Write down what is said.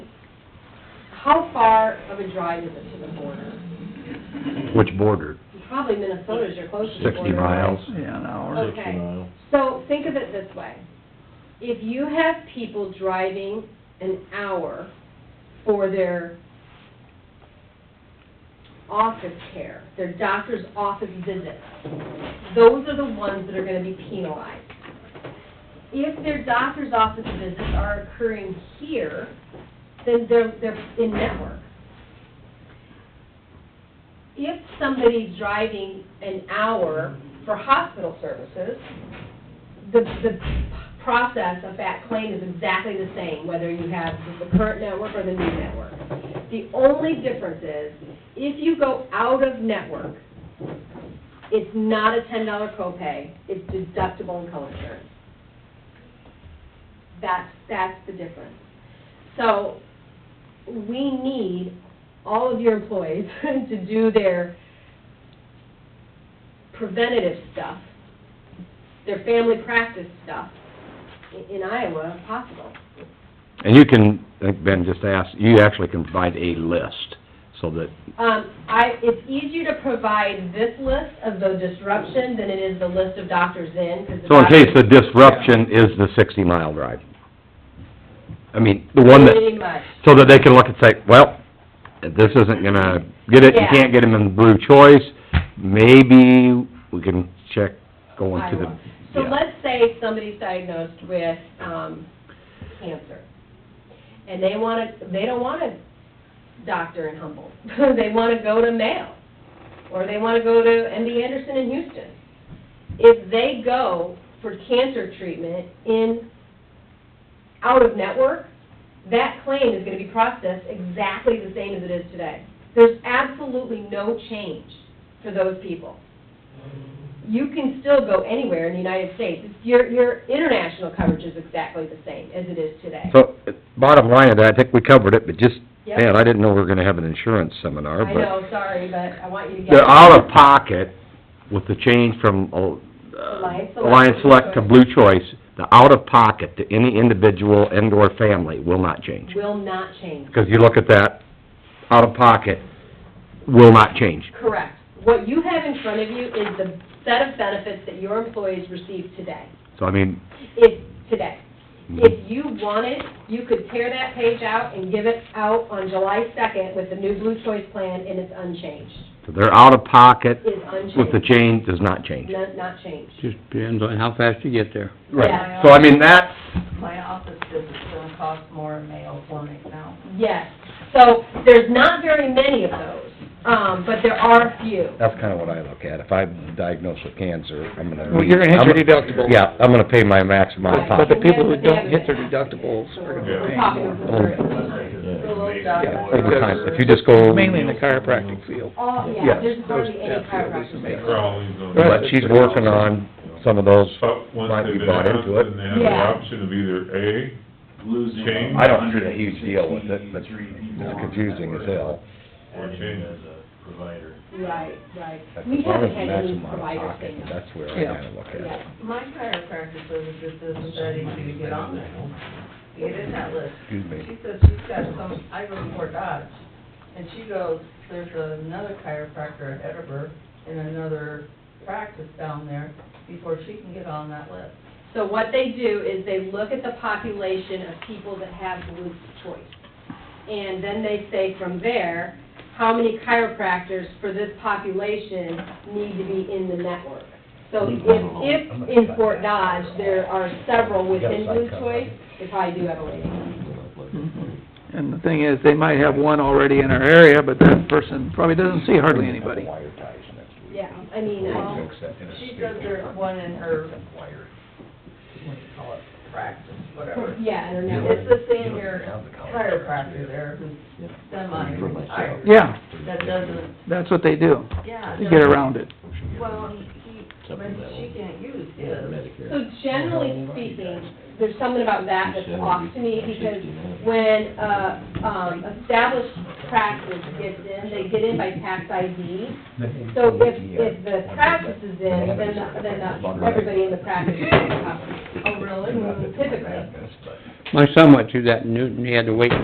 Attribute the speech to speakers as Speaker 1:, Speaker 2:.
Speaker 1: how far of a drive is it to the border?
Speaker 2: Which border?
Speaker 1: Probably Minnesota's your closest border.
Speaker 2: 60 miles?
Speaker 3: Yeah, an hour.
Speaker 1: Okay. So think of it this way. If you have people driving an hour for their office care, their doctor's office visits, those are the ones that are gonna be penalized. If their doctor's office visits are occurring here, then they're, they're in network. If somebody's driving an hour for hospital services, the, the process of that claim is exactly the same, whether you have the current network or the new network. The only difference is, if you go out of network, it's not a ten dollar copay, it's deductible and co-insurance. That's, that's the difference. So, we need all of your employees to do their preventative stuff, their family practice stuff i- in Iowa, if possible.
Speaker 2: And you can, I think Ben just asked, you actually can provide a list, so that,
Speaker 1: Um, I, it's easier to provide this list of the disruption than it is the list of doctors in, 'cause the
Speaker 2: so in case the
Speaker 1: doctors-
Speaker 2: disruption is the sixty mile drive. I mean, the one that,
Speaker 1: Pretty much.
Speaker 2: so that they can look and say, well, this isn't gonna get it, you
Speaker 1: Yeah.
Speaker 2: can't get them in blue choice, maybe we can check going to
Speaker 1: Iowa.
Speaker 2: the,
Speaker 1: So
Speaker 2: yeah.
Speaker 1: let's say somebody's diagnosed with, um, cancer, and they wanna, they don't want a doctor in Humboldt. They wanna go to Mayo, or they wanna go to MD Anderson in Houston. If they go for cancer treatment in, out of network, that claim is gonna be processed exactly the same as it is today. There's absolutely no change for those people you can still go anywhere in the United States. It's- Your, your international coverage is exactly the same as it is today.
Speaker 2: So, uh, bottom line of that, I think we covered it, but just,
Speaker 1: Yep.
Speaker 2: man, I didn't know we were gonna have an insurance seminar,
Speaker 1: I
Speaker 2: but...
Speaker 1: know, sorry, but I want you to get.
Speaker 2: They're out of pocket with the change from uh,
Speaker 1: Alliance Select to
Speaker 2: Alliance Select to
Speaker 1: Blue
Speaker 2: Blue Choice. The out of pocket to any individual and/or family will not change.
Speaker 1: Will not change.
Speaker 2: Because you look at that, out of pocket will not change.
Speaker 1: Correct. What you have in front of you is the set of benefits that your employees receive today,
Speaker 2: So I mean,
Speaker 1: if, today.
Speaker 2: mhm,
Speaker 1: If you wanted, you could tear that page out and give it out on July second with the new Blue Choice plan, and it's unchanged.
Speaker 2: so they're out of pocket
Speaker 1: It's
Speaker 2: with the
Speaker 1: unchanged.
Speaker 2: change does not change.
Speaker 1: Not, not changed.
Speaker 3: Just depends on how fast you get there.
Speaker 2: Right. So I mean, that's,
Speaker 4: My office visit's gonna cost more in mail for me now.
Speaker 1: Yes, so there's not very many of those, um, but there are a few.
Speaker 2: that's kind of what I look at. If I'm diagnosed with cancer, I'm gonna...
Speaker 5: Well, you're gonna hit your deductible.
Speaker 2: Yeah, I'm gonna pay my maximum out of
Speaker 5: But the
Speaker 2: pocket.
Speaker 5: people who don't hit their deductibles are gonna
Speaker 1: We're
Speaker 5: be paying
Speaker 1: talking
Speaker 5: more.
Speaker 1: about-
Speaker 2: Over time, if you just go...
Speaker 5: Mainly in the chiropractic field.
Speaker 1: Oh, yeah,
Speaker 2: Yes.
Speaker 1: there's hardly any
Speaker 5: That field is
Speaker 1: chiropractors.
Speaker 3: Mm-hmm.
Speaker 5: amazing.
Speaker 2: But she's working on some of those,
Speaker 6: But once
Speaker 2: Might be
Speaker 6: they've been
Speaker 2: bought
Speaker 6: out,
Speaker 2: into it.
Speaker 6: then they have the
Speaker 1: Yeah.
Speaker 6: option of either A,
Speaker 7: losing.
Speaker 6: Change.
Speaker 2: I don't see a huge deal with it, but it's
Speaker 7: it's
Speaker 2: confusing as hell.
Speaker 6: Or change.
Speaker 7: As a provider.
Speaker 1: Right, right.
Speaker 2: As
Speaker 1: We
Speaker 2: long
Speaker 1: haven't
Speaker 2: as the
Speaker 1: had any
Speaker 2: maximum out of
Speaker 1: provider
Speaker 2: pocket,
Speaker 1: thing.
Speaker 2: That's where I
Speaker 3: Yeah.
Speaker 2: kinda look at
Speaker 1: Yeah.
Speaker 2: it.
Speaker 4: My chiropractor says it just isn't that easy to get on there, get in that list.
Speaker 2: Excuse me.
Speaker 4: She says she's got some, I go to Fort Dodge, and she goes, there's another chiropractor at Edinburgh and another practice down there before she can get on that list.
Speaker 1: So what they do is they look at the population of people that have Blue's choice. And then they say from there, how many chiropractors for this population need to be in the network? So if, if in Fort Dodge, there are several within Blue Choice, they probably do have a waiting.
Speaker 3: And the thing is, they might have one already in our area, but that person probably doesn't see hardly anybody.
Speaker 2: Wire ties next week.
Speaker 1: Yeah, I mean, um,
Speaker 4: Well,
Speaker 1: I-
Speaker 2: Fix that in a
Speaker 4: She
Speaker 2: speaker.
Speaker 4: does her one in her,
Speaker 2: Wire.
Speaker 4: what do you call it, practice, whatever.
Speaker 1: yeah, I don't know.
Speaker 4: It's the senior chiropractor there who's semi-retired.
Speaker 3: Yeah,
Speaker 4: That doesn't,
Speaker 3: that's what they do,
Speaker 4: yeah.
Speaker 3: to get around it.
Speaker 4: Well, he, but she can't use his.
Speaker 1: So generally speaking, there's something about that that's off to me because when, uh, um, established practice gets in, they get in by tax ID. So if, if the practice is in, then, the- then the- everybody in the practice is in.
Speaker 4: Oh, really?
Speaker 1: Typically.
Speaker 3: My son went through that and knew, and he had to wait